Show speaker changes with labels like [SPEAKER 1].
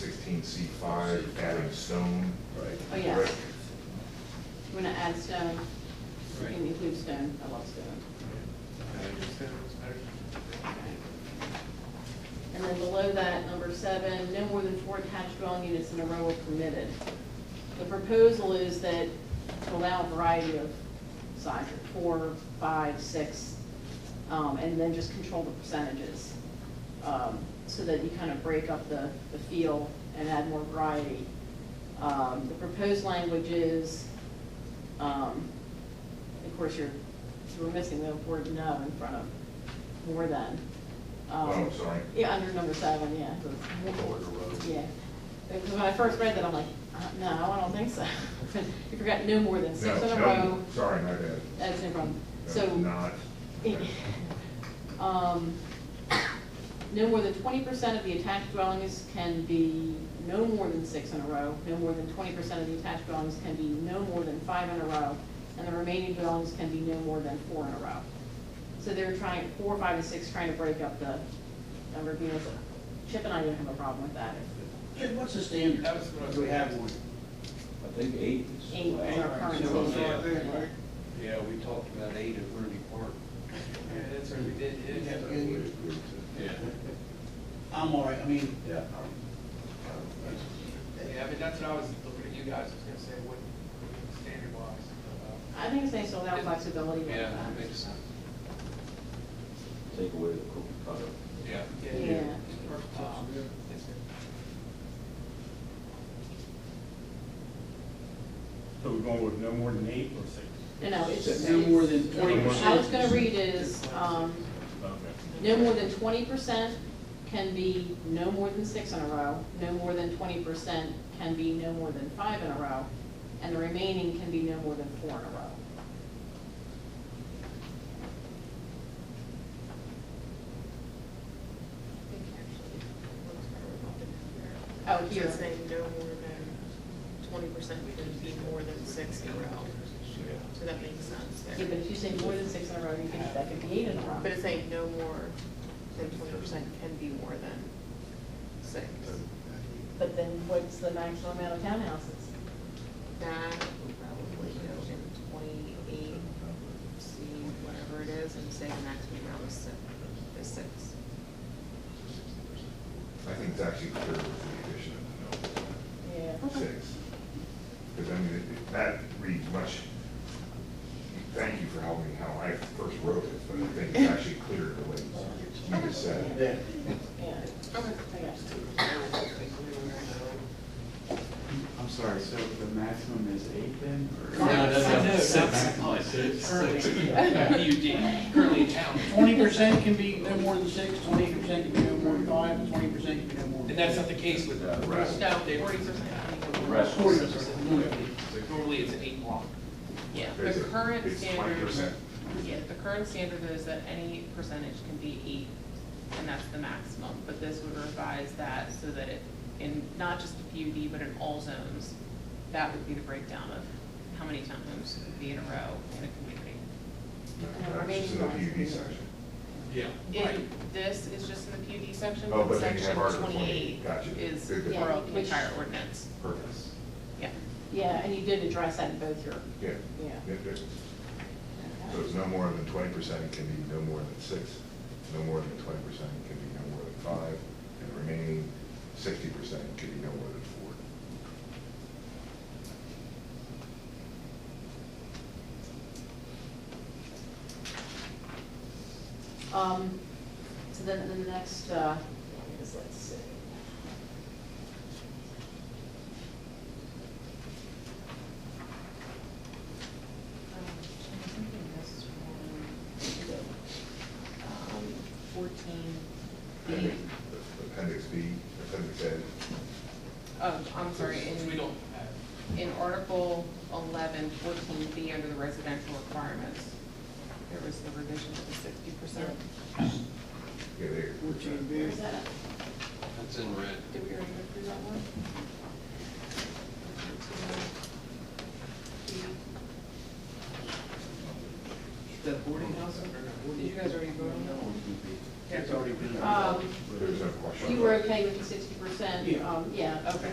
[SPEAKER 1] nineteen C five, adding stone.
[SPEAKER 2] Right.
[SPEAKER 3] Oh, yeah.
[SPEAKER 1] brick.
[SPEAKER 3] You wanna add stone, you
[SPEAKER 2] Right.
[SPEAKER 3] can include stone, I love stone. And then below that, number seven, no more than four attached dwelling units in a row are permitted. The proposal is that to allow a variety of sizes, four, five, six, um, and then just control the percentages. um, So that you kind of break up the, the feel and add more variety. Um, The proposed language is, um, of course, you're, we're missing the word no in front of more than. Um,
[SPEAKER 1] Oh, I'm sorry.
[SPEAKER 3] Yeah, under number seven, yeah. Yeah, because when I first read that, I'm like, uh, no, I don't think so. You forgot no more than six
[SPEAKER 1] No,
[SPEAKER 3] in a
[SPEAKER 1] no,
[SPEAKER 3] row,
[SPEAKER 1] Sorry, my bad.
[SPEAKER 3] that's no problem.
[SPEAKER 1] That's
[SPEAKER 3] So.
[SPEAKER 1] Not.
[SPEAKER 3] Um, No more than twenty percent of the attached dwellings can be no more than six in a row. No more than twenty percent of the attached dwellings can be no more than five in a row. And the remaining dwellings can be no more than four in a row. So they're trying, four, five, and six, trying to break up the number of units. Chip and I didn't have a problem with that.
[SPEAKER 4] Jim, what's the standard?
[SPEAKER 5] That was what I was
[SPEAKER 4] Do we have one?
[SPEAKER 2] I think eight is.
[SPEAKER 3] Eight is our current
[SPEAKER 2] Yeah.
[SPEAKER 3] standard.
[SPEAKER 2] Yeah, we talked about eight at Rooney Park.
[SPEAKER 5] Yeah, that's what we did, yeah.
[SPEAKER 4] Yeah.
[SPEAKER 2] Yeah.
[SPEAKER 4] I'm all right, I mean,
[SPEAKER 2] Yeah.
[SPEAKER 5] Yeah, but that's what I was looking at you guys, I was gonna say, what, standard wise.
[SPEAKER 3] I think it's nice to allow flexibility with
[SPEAKER 5] Yeah,
[SPEAKER 3] that.
[SPEAKER 5] that makes sense.
[SPEAKER 2] Take away the cookie cutter.
[SPEAKER 5] Yeah.
[SPEAKER 3] Yeah.
[SPEAKER 5] Um,
[SPEAKER 6] So we're going with no more than eight or six?
[SPEAKER 3] No, no, it's.
[SPEAKER 4] no more than twenty percent.
[SPEAKER 3] I was gonna read is, um,
[SPEAKER 6] Okay.
[SPEAKER 3] No more than twenty percent can be no more than six in a row, no more than twenty percent can be no more than five in a row, and the remaining can be no more than four in a row. Oh,
[SPEAKER 7] So
[SPEAKER 3] here,
[SPEAKER 7] it's saying no more than twenty percent can be more than six in a row, so that makes sense
[SPEAKER 3] yeah, but
[SPEAKER 7] there.
[SPEAKER 3] if you say more than six in a row, you can, that could be eight in a row.
[SPEAKER 7] But it's saying no more than twenty percent can be more than six.
[SPEAKER 3] But then what's the maximum amount of townhouses?
[SPEAKER 7] That would probably go in twenty-eight, C, whatever it is, and say the maximum amount is six, is six.
[SPEAKER 1] I think it's actually clear with the addition of the no.
[SPEAKER 3] Yeah.
[SPEAKER 1] six. Because I mean, it- it- that reads much, thank you for helping me how I first wrote it, but I think it's actually clearer the way you just said. it.
[SPEAKER 4] Yeah.
[SPEAKER 3] Yeah,
[SPEAKER 7] Okay.
[SPEAKER 3] I got you.
[SPEAKER 8] I'm sorry, so the maximum is eight then? or-
[SPEAKER 3] No, that's
[SPEAKER 5] currently in town.
[SPEAKER 4] Twenty percent can be no more than six, twenty percent can be no more than five, and twenty percent can be no more than.
[SPEAKER 5] And that's not the case with the rest.
[SPEAKER 7] No, forty percent.
[SPEAKER 2] Rest.
[SPEAKER 4] Forty percent.
[SPEAKER 5] Normally it's an eight block.
[SPEAKER 7] Yeah,
[SPEAKER 1] It's
[SPEAKER 7] the
[SPEAKER 1] a-
[SPEAKER 7] current
[SPEAKER 1] it's
[SPEAKER 7] standard.
[SPEAKER 1] 20%.
[SPEAKER 7] Yeah, the current standard is that any percentage can be eight, and that's the maximum, but this would revise that so that it, in not just the PUD, but in all zones, that would be the breakdown of how many townhomes would be in a row in a community.
[SPEAKER 3] And the
[SPEAKER 1] That's just in the
[SPEAKER 3] remaining
[SPEAKER 1] PUD
[SPEAKER 3] ones.
[SPEAKER 1] section.
[SPEAKER 5] Yeah.
[SPEAKER 7] If this is just in the PUD section,
[SPEAKER 1] Oh,
[SPEAKER 7] but
[SPEAKER 1] but then you
[SPEAKER 7] section
[SPEAKER 1] have Article 28,
[SPEAKER 7] twenty-eight
[SPEAKER 1] gotcha.
[SPEAKER 7] is
[SPEAKER 1] Good, good.
[SPEAKER 7] for
[SPEAKER 3] Yeah,
[SPEAKER 7] the
[SPEAKER 3] which-
[SPEAKER 7] entire ordinance,
[SPEAKER 1] Perfect.
[SPEAKER 7] yeah.
[SPEAKER 3] Yeah, and you did address that in both your,
[SPEAKER 1] Yeah.
[SPEAKER 3] yeah.
[SPEAKER 1] Yeah, good. So it's no more than twenty percent, it can be no more than six, no more than twenty percent, it can be no more than five, and the remaining sixty percent can be no more than four.
[SPEAKER 3] Um, so then, then the next, uh, is, let's see.
[SPEAKER 7] Um, Fourteen
[SPEAKER 1] Appendix- Appendix B, appendix A.
[SPEAKER 7] Oh, I'm sorry, in.
[SPEAKER 5] We don't have.
[SPEAKER 7] In Article 11, 14B, under the residential requirements, there was the revision to the 60%.
[SPEAKER 1] Yeah, there.
[SPEAKER 4] Fourteen
[SPEAKER 3] Where's
[SPEAKER 4] big.
[SPEAKER 3] that?
[SPEAKER 2] That's in red.
[SPEAKER 7] Did we already go through that one?
[SPEAKER 2] The boarding house?
[SPEAKER 7] Did you guys already vote on that one?
[SPEAKER 4] That's already been.
[SPEAKER 3] Um,
[SPEAKER 1] There's no question.
[SPEAKER 3] you were okay with the sixty percent?
[SPEAKER 4] Yeah.
[SPEAKER 3] Um, yeah,
[SPEAKER 9] Yeah.
[SPEAKER 3] Okay.